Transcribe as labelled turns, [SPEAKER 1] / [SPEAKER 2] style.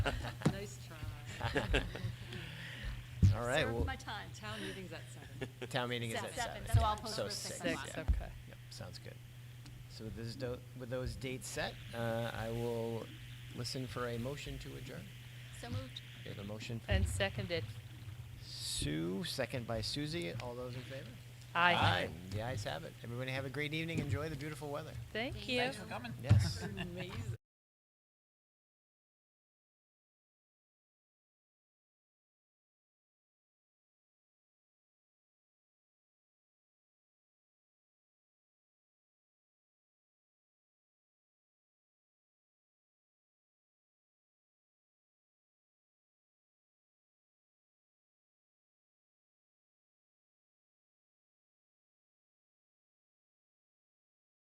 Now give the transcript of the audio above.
[SPEAKER 1] All right,
[SPEAKER 2] Served
[SPEAKER 1] well-
[SPEAKER 2] my time. Town meeting's at seven.
[SPEAKER 1] Town meeting is at
[SPEAKER 2] Seven.
[SPEAKER 1] seven.
[SPEAKER 2] Seven, so I'll post
[SPEAKER 1] So
[SPEAKER 2] this
[SPEAKER 1] six,
[SPEAKER 2] next
[SPEAKER 1] yeah.
[SPEAKER 2] month. Okay.
[SPEAKER 1] Yep, sounds good. So with those, do- with those dates set, uh, I will listen for a motion to adjourn.
[SPEAKER 2] So moved.
[SPEAKER 1] We have a motion from
[SPEAKER 3] And seconded.
[SPEAKER 1] Sue, second by Susie. All those in favor?
[SPEAKER 3] Aye.
[SPEAKER 1] The ayes have it. Everybody have a great evening. Enjoy the beautiful weather.
[SPEAKER 3] Thank you.
[SPEAKER 4] Thanks for coming.
[SPEAKER 1] Yes.
[SPEAKER 2] Amazing.